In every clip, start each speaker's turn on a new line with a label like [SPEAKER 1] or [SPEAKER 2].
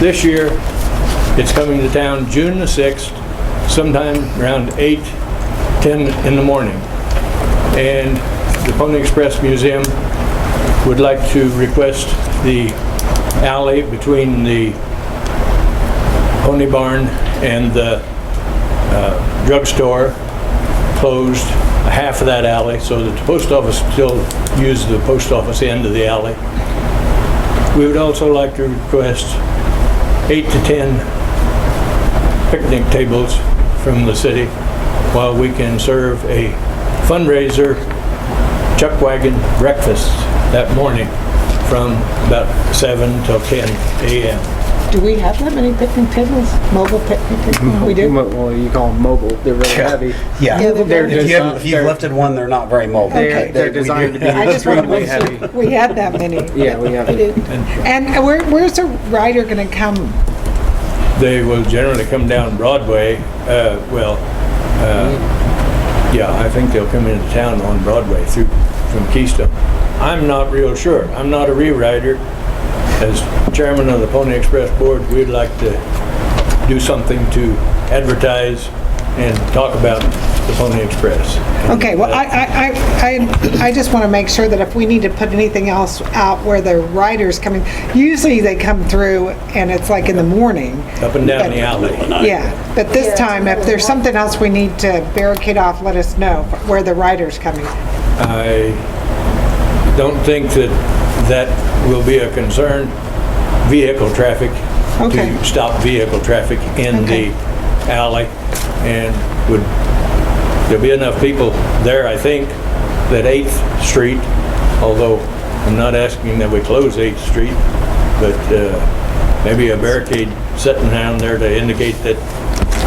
[SPEAKER 1] This year, it's coming to town June the 6th, sometime around 8, 10 in the morning. And the Pony Express Museum would like to request the alley between the Pony Barn and the uh, drugstore closed, a half of that alley, so that the post office still uses the post office end of the alley. We would also like to request eight to 10 picnic tables from the city while we can serve a fundraiser chuck wagon breakfast that morning from about 7 till 10 a.m.
[SPEAKER 2] Do we have that many picnic tables? Mobile picnic tables? We do?
[SPEAKER 3] Mo- Well, you call them mobile. They're really
[SPEAKER 4] Yeah.
[SPEAKER 3] heavy.
[SPEAKER 4] Yeah.
[SPEAKER 2] Yeah, they're
[SPEAKER 3] They're
[SPEAKER 2] very-
[SPEAKER 4] If you,
[SPEAKER 3] designed,
[SPEAKER 4] if you
[SPEAKER 3] they're,
[SPEAKER 4] lifted one, they're not very mobile.
[SPEAKER 3] they're, they're designed to be
[SPEAKER 2] I just wanted to
[SPEAKER 3] extremely
[SPEAKER 2] make
[SPEAKER 3] heavy.
[SPEAKER 2] sure we had that many.
[SPEAKER 3] Yeah, we have
[SPEAKER 2] I
[SPEAKER 3] it.
[SPEAKER 2] didn't. And where, where's the rider gonna come?
[SPEAKER 1] They will generally come down Broadway, uh, well, uh, yeah, I think they'll come into town on Broadway through, from Keystone. I'm not real sure. I'm not a rewriter. As chairman of the Pony Express Board, we'd like to do something to advertise and talk about the Pony Express.
[SPEAKER 2] Okay, well, I, I, I, I I just want to make sure that if we need to put anything else out where the rider's coming, usually they come through and it's like in the morning.
[SPEAKER 1] Up and down the alley.
[SPEAKER 2] Yeah, but this time, if there's something else we need to barricade off, let us know where the rider's coming.
[SPEAKER 1] I don't think that that will be a concern, vehicle traffic,
[SPEAKER 2] Okay.
[SPEAKER 1] to stop vehicle traffic in
[SPEAKER 2] Okay.
[SPEAKER 1] the alley, and would, there'll be enough people there, I think, that 8th Street, although I'm not asking that we close 8th Street, but uh, maybe a barricade sitting down there to indicate that,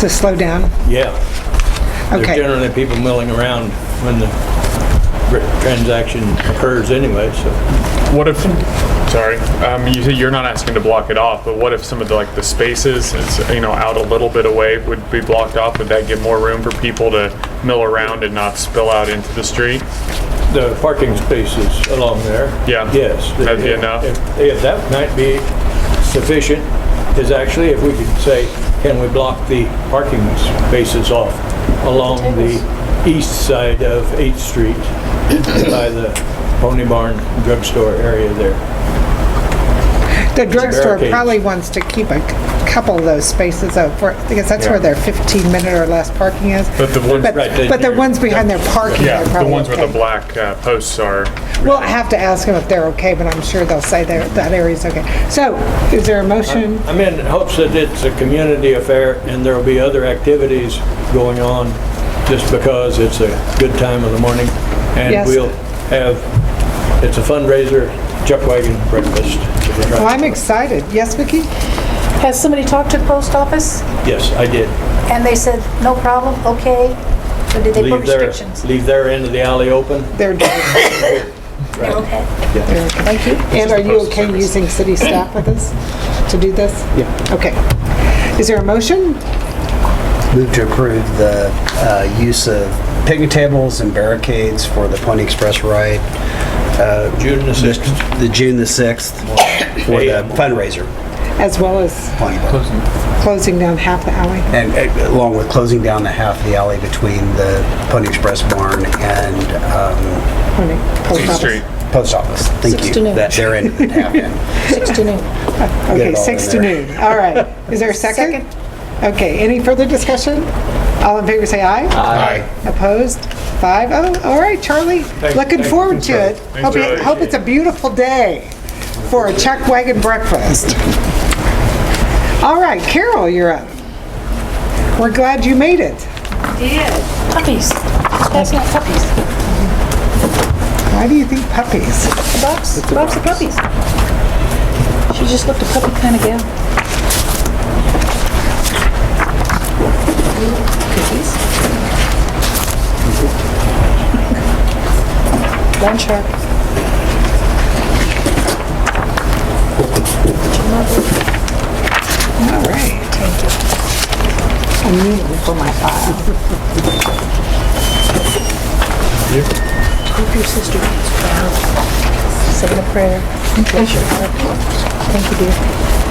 [SPEAKER 2] To slow down?
[SPEAKER 1] yeah,
[SPEAKER 2] Okay.
[SPEAKER 1] there's generally people milling around when the r- transaction occurs anyway, so.
[SPEAKER 5] What if, sorry, um, you, you're not asking to block it off, but what if some of the, like, the spaces, it's, you know, out a little bit away would be blocked off? Would that give more room for people to mill around and not spill out into the street?
[SPEAKER 1] The parking spaces along there.
[SPEAKER 5] Yeah.
[SPEAKER 1] Yes.
[SPEAKER 5] That'd be enough.
[SPEAKER 1] If- if that might be sufficient, is actually if we could say, can we block the parking spaces off along the east side of 8th Street by the Pony Barn drugstore area there?
[SPEAKER 2] The drugstore
[SPEAKER 1] Barricades.
[SPEAKER 2] probably wants to keep a c- couple of those spaces up for, because that's where their 15-minute or less parking is.
[SPEAKER 5] But the ones,
[SPEAKER 2] But,
[SPEAKER 1] Right, they-
[SPEAKER 2] but the ones behind their parking
[SPEAKER 5] yeah,
[SPEAKER 2] are
[SPEAKER 5] the
[SPEAKER 2] probably
[SPEAKER 5] ones where the
[SPEAKER 2] okay.
[SPEAKER 5] black uh, posts are,
[SPEAKER 2] We'll have to ask them if they're okay, but I'm sure they'll say they're- that area's okay. So, is there a motion?
[SPEAKER 1] I'm in hopes that it's a community affair and there'll be other activities going on just because it's a good time of the morning. And
[SPEAKER 2] Yes.
[SPEAKER 1] we'll have, it's a fundraiser, chuck wagon breakfast.
[SPEAKER 2] Well, I'm excited. Yes, Vicki?
[SPEAKER 6] Has somebody talked to the post office?
[SPEAKER 1] Yes, I did.
[SPEAKER 6] And they said, no problem, okay? Or did they put
[SPEAKER 1] Leave their,
[SPEAKER 6] restrictions?
[SPEAKER 1] leave their end of the alley open.
[SPEAKER 2] They're doing
[SPEAKER 6] They're okay?
[SPEAKER 2] it. Thank you. And are you okay using city staff with us to do this?
[SPEAKER 3] Yeah.
[SPEAKER 2] Okay. Is there a motion?
[SPEAKER 4] Move to approve the uh, use of picnic tables and barricades for the Pony Express ride. uh,
[SPEAKER 1] June the 6th.
[SPEAKER 4] The June the 6th for the fundraiser,
[SPEAKER 2] As well as
[SPEAKER 4] Pony Barn.
[SPEAKER 2] closing down half the alley?
[SPEAKER 4] And uh, along with closing down the half of the alley between the Pony Express barn and
[SPEAKER 2] Or no, post office?
[SPEAKER 5] street.
[SPEAKER 4] um, post office. Thank
[SPEAKER 6] to
[SPEAKER 4] you.
[SPEAKER 6] noon.
[SPEAKER 4] That they're in half in. Get
[SPEAKER 2] Okay,
[SPEAKER 4] it all
[SPEAKER 2] six
[SPEAKER 4] in
[SPEAKER 2] to
[SPEAKER 4] there.
[SPEAKER 2] noon. All right. Is there a second? Okay, any further discussion? All in favor, say aye. Aye. Opposed? Five oh, all right, Charlie. Looking
[SPEAKER 1] thank-
[SPEAKER 2] forward to it. Hope it-
[SPEAKER 5] Charlie.
[SPEAKER 2] Hope it's a beautiful day for a chuck wagon breakfast. All right, Carol, you're up. We're glad you made it.
[SPEAKER 6] Puppies. That's not puppies.
[SPEAKER 2] Why do you think puppies?
[SPEAKER 6] Bob's, Bob's the puppies. She just looked a puppy kind of gal. Cookies. One shark.
[SPEAKER 2] All right. I'm kneeling for my file.
[SPEAKER 6] Hope your sister gets well. Say a prayer. Thank you, dear.